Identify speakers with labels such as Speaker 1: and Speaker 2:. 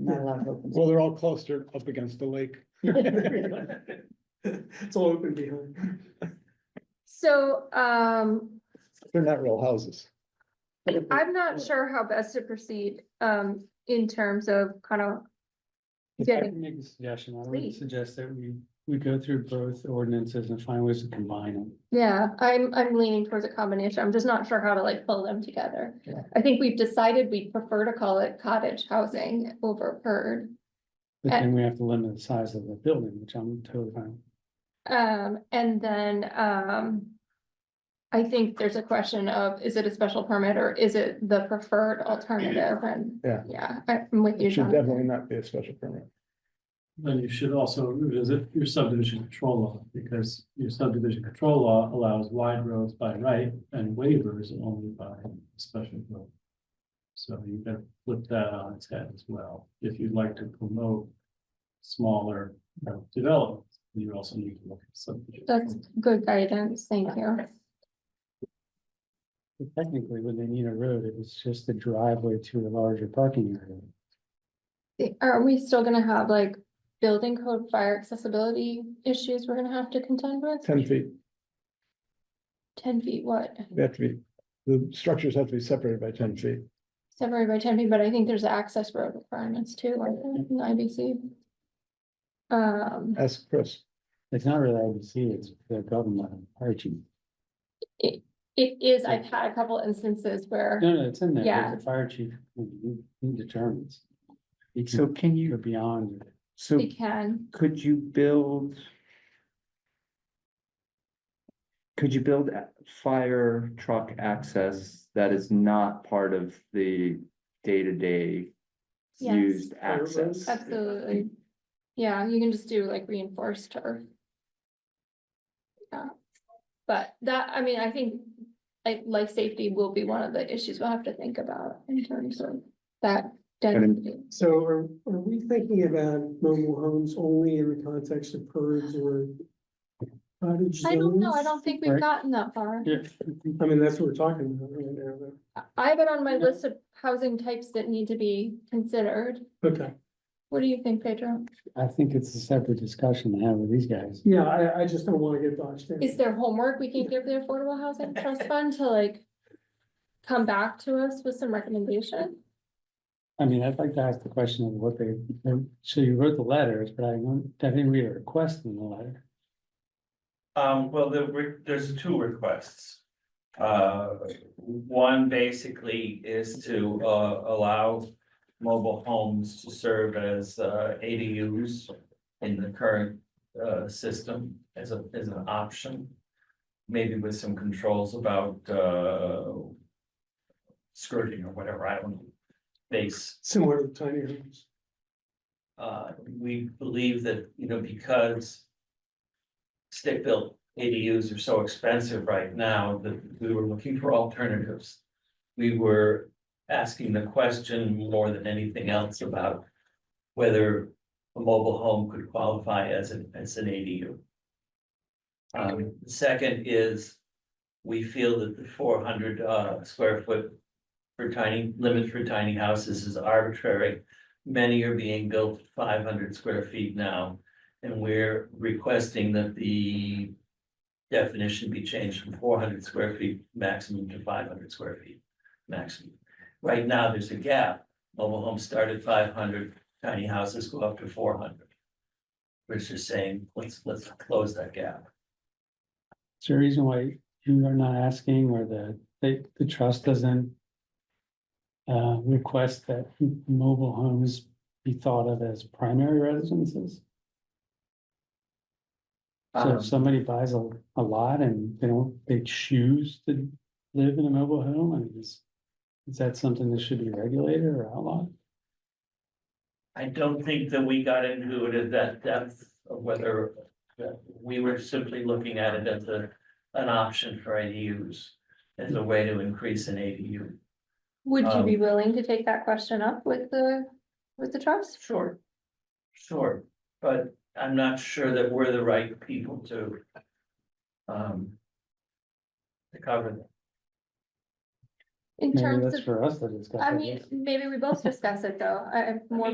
Speaker 1: not a lot of open.
Speaker 2: Well, they're all clustered up against the lake.
Speaker 3: It's all open behind.
Speaker 4: So, um,
Speaker 2: They're not real houses.
Speaker 1: space.
Speaker 4: I'm not sure how best to proceed, um, in terms of kind of
Speaker 5: I
Speaker 4: getting,
Speaker 5: can make a suggestion. I would
Speaker 4: Please.
Speaker 5: suggest that we, we go through both ordinances and find ways to combine them.
Speaker 4: yeah, I'm, I'm leaning towards a combination. I'm just not sure how to like pull them together.
Speaker 1: Yeah.
Speaker 4: I think we've decided we prefer to call it cottage housing over PERD.
Speaker 5: But
Speaker 4: Uh,
Speaker 5: then we have to limit the size of the building, which I'm totally fine. with.
Speaker 4: Um, and then, um. I think there's a question of, is it a special permit or is it the preferred alternative? And,
Speaker 2: Yeah.
Speaker 4: yeah, I'm with you,
Speaker 2: It should
Speaker 4: Jonathan.
Speaker 2: definitely not be a special permit.
Speaker 6: Then you should also revisit your subdivision control law, because your subdivision control law allows wide roads by right and waivers only by special vote. So you can flip that on its head as well, if you'd like to promote smaller you know, developments, you also need to look at subdivision.
Speaker 4: That's good guidance, thank you.
Speaker 5: But Technically, when they need a road, it was just the driveway to the larger parking area.
Speaker 4: Are we still gonna have like building code fire accessibility issues we're gonna have to contend with?
Speaker 2: Ten feet,
Speaker 4: Ten feet, what?
Speaker 2: they have to be, the structures have to be separated by ten feet.
Speaker 4: Separated by ten feet, but I think there's access road requirements too, like in the IBC. Um,
Speaker 2: Ask Chris.
Speaker 5: It's not really IBC, it's the government, uh, Archie.
Speaker 4: it is, I've had a couple instances where,
Speaker 5: No, no, it's in there.
Speaker 4: Yeah.
Speaker 5: The fire chief, he he determines. He
Speaker 7: So
Speaker 5: can
Speaker 7: can
Speaker 5: go
Speaker 7: you,
Speaker 5: beyond.
Speaker 7: so
Speaker 4: we can,
Speaker 7: could you build? Could you build a- fire truck access that is not part of the day-to-day?
Speaker 4: Yes.
Speaker 7: Used access?
Speaker 4: absolutely. Yeah, you can just do like reinforced turf. Yeah, but that, I mean, I think like life safety will be one of the issues we'll have to think about in terms of that. density.
Speaker 3: So are, are we thinking about mobile homes only in the context of purds or? cottage
Speaker 4: I don't know, I
Speaker 3: zones?
Speaker 4: don't think we've
Speaker 5: Right.
Speaker 4: gotten that far.
Speaker 5: Yeah.
Speaker 3: I mean, that's what we're talking about right now, though.
Speaker 4: I- I have it on my
Speaker 3: Yeah.
Speaker 4: list of housing types that need to be considered.
Speaker 3: Okay,
Speaker 4: What do you think, Pedro?
Speaker 5: I think it's a separate discussion to have with these guys.
Speaker 3: yeah, I, I just don't wanna get boxed in.
Speaker 4: Is there homework we can give the Affordable Housing Trust Fund to like come back to us with some recommendation?
Speaker 5: I mean, I'd like to ask the question of what they, so you wrote the letters, but I don't, I didn't read a request in the letter.
Speaker 8: Um, well, there were, there's two requests. Uh, one basically is to, uh, allow mobile homes to serve as, uh, ADUs in the current, uh, system as a, as an option. Maybe with some controls about, uh, skirting or whatever, I don't know. Base
Speaker 3: Similar to tiny homes.
Speaker 8: uh, we believe that, you know, because. Stick-built ADUs are so expensive right now that we were looking for alternatives. We were asking the question more than anything else about whether a mobile home could qualify as an, as an ADU. Um, second is, we feel that the four hundred, uh, square foot for tiny, limit for tiny houses is arbitrary many are being built five hundred square feet now. And we're requesting that the definition be changed from four hundred square feet maximum to five hundred square feet maximum. Right now, there's a gap. Mobile homes start at five hundred, tiny houses go up to four hundred. We're just saying, let's, let's close that gap.
Speaker 5: Is there a reason why you are not asking or the, the, the trust doesn't uh, request that mobile homes be thought of as primary residences? So
Speaker 8: Um,
Speaker 5: if somebody buys a, a lot and they don't, they choose to live in a mobile home, I mean, is, is that something that should be regulated or outlawed?
Speaker 8: I don't think that we got into it at that depth of whether that we were simply looking at it as a, an option for ADUs. As a way to increase an ADU.
Speaker 4: Would you be
Speaker 8: Um,
Speaker 4: willing to take that question up with the, with the trust?
Speaker 8: Sure. Sure, but I'm not sure that we're the right people to. Um. To cover that.
Speaker 4: In
Speaker 5: Maybe
Speaker 4: terms
Speaker 5: that's
Speaker 4: of,
Speaker 5: for us to discuss.
Speaker 4: I
Speaker 5: I
Speaker 4: mean,
Speaker 5: guess.
Speaker 4: maybe we both discuss it though, I, I'm more